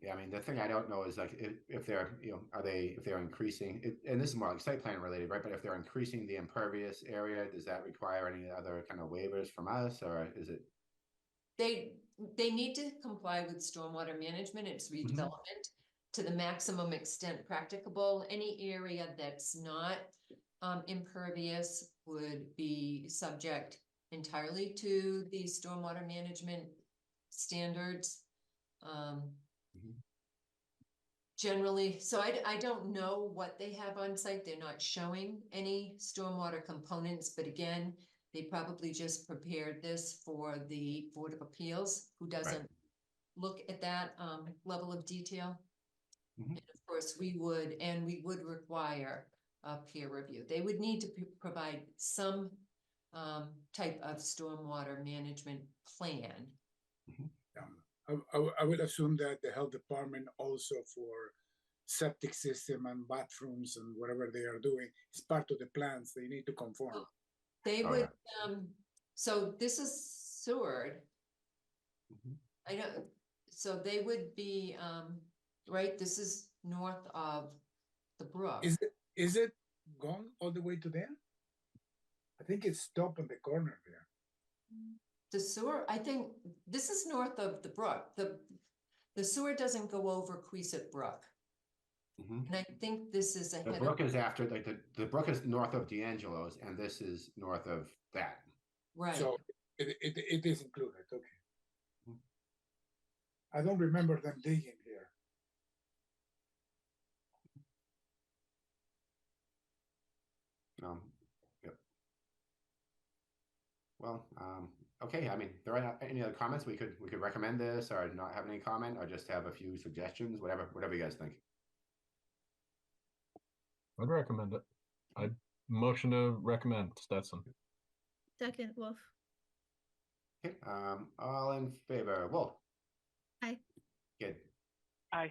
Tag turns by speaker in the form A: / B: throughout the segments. A: Yeah, I mean, the thing I don't know is like if, if they're, you know, are they, if they're increasing, it, and this is more like site plan related, right? But if they're increasing the impervious area, does that require any other kind of waivers from us or is it?
B: They, they need to comply with stormwater management, it's redevelopment. To the maximum extent practicable, any area that's not um impervious would be subject. Entirely to the stormwater management standards. Um.
A: Mhm.
B: Generally, so I d- I don't know what they have on site, they're not showing any stormwater components, but again. They probably just prepared this for the Board of Appeals, who doesn't look at that um level of detail.
A: Mhm.
B: And of course, we would, and we would require a peer review. They would need to p- provide some um type of stormwater management plan.
C: Um, I, I w- I would assume that the health department also for septic system and bathrooms and whatever they are doing, it's part of the plans, they need to conform.
B: They
A: Oh,
B: would, um, so this is Seward.
A: Mhm.
B: I don't, so they would be, um, right, this is north of the brook.
C: Is it, is it gone all the way to there? I think it's top on the corner there.
B: The sewer, I think, this is north of the brook, the, the sewer doesn't go over Queesit Brook,
A: Mhm.
B: and I think this is
A: The
B: ahead of,
A: brook is after, like the, the brook is north of D'Angelo's and this is north of that.
B: right,
C: So it, it, it is included, okay.
A: Mhm.
C: I don't remember them digging here.
A: Um, yep. Well, um, okay, I mean, there are not any other comments? We could, we could recommend this or not have any comment or just have a few suggestions, whatever, whatever you guys think.
D: I'd recommend it. I'd motion to recommend Stetson.
E: Second, Wolf.
A: Okay, um, all in favor, Wolf?
E: Aye.
A: Good.
F: Aye.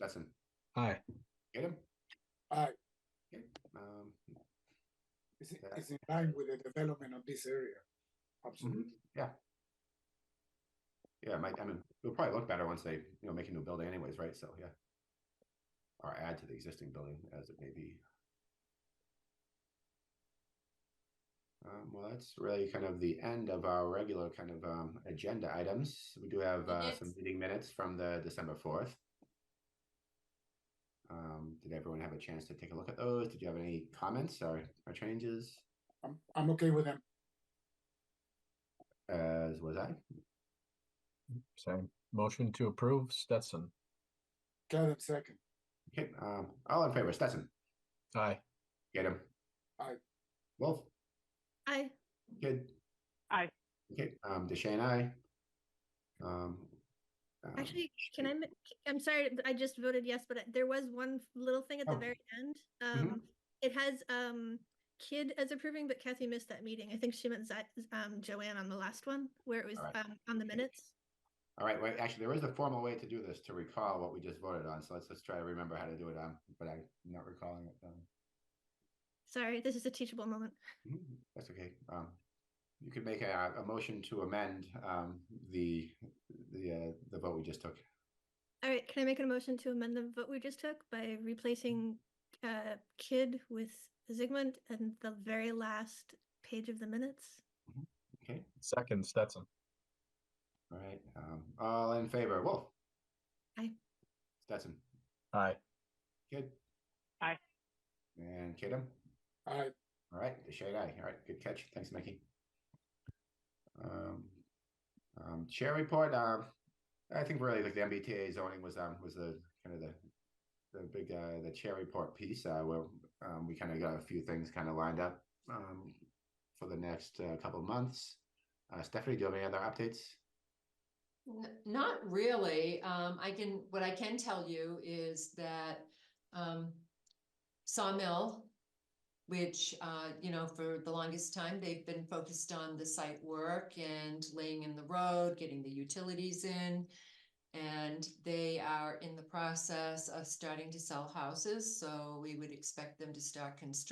A: Stetson,
D: Aye.
A: get him?
C: Aye.
A: Okay, um,
C: It's,
A: Yeah.
C: it's in line with the development of this area. Absolutely.
A: yeah, it might, I mean, it'll probably look better once they, you know, make a new building anyways, right? So, yeah. Or add to the existing building as it may be. Um, well, that's really kind of the end of our regular kind of, um, agenda items. We do have, uh, some
B: Minutes.
A: meeting minutes from the December fourth. Um, did everyone have a chance to take a look at those? Did you have any comments or, or changes?
C: I'm, I'm okay with them.
A: As was I?
D: Same. Motion to approve Stetson.
C: Kevin second.
A: Okay, um, all in favor, Stetson?
D: Aye.
A: Get him.
C: Aye.
A: Wolf,
E: I
A: good.
F: Aye.
A: Okay, um, Deshane, aye. Um. um,
E: actually, can I, ma- I'm sorry, I just voted yes, but there was one little thing at the
A: Oh.
E: very end.
A: Mhm.
E: Um, it has, um, kid as approving, but Kathy missed that meeting. I think she meant Zi- um, Joanne on the last one where it was,
A: Alright.
E: um, on the
A: Okay.
E: minutes.
A: All right, wait, actually, there is a formal way to do this, to recall what we just voted on, so let's just try to remember how to do it, um, but I'm not recalling it, um.
E: Sorry, this is a teachable moment.
A: Mhm, That's okay. Um, you could make a, a motion to amend, um, the, the, uh, the vote we just took.
E: All right, can I make a motion to amend the vote we just took by replacing, uh, kid with Zygmunt and the very last page of the minutes?
A: Okay,
D: Second Stetson.
A: all right, um, all in favor, Wolf?
E: Aye.
A: Stetson,
D: Aye.
A: good.
F: Aye.
A: And Kadam?
C: I
A: All right, the shade eye. All right, good catch. Thanks, Mickey. Um, um, chair report, um, I think really like the MBTA zoning was, um, was the kind of the, the big, uh, the chair report piece, uh, where, um, we kind of got a few things kind of lined up, um, for the next, uh, couple of months. Uh, Stephanie, do you have any other updates?
B: N- not really, um, I can, what I can tell you is that, um, Sawmill. Which, uh, you know, for the longest time, they've been focused on the site work and laying in the road, getting the utilities in. And they are in the process of starting to sell houses, so we would expect them to start construction.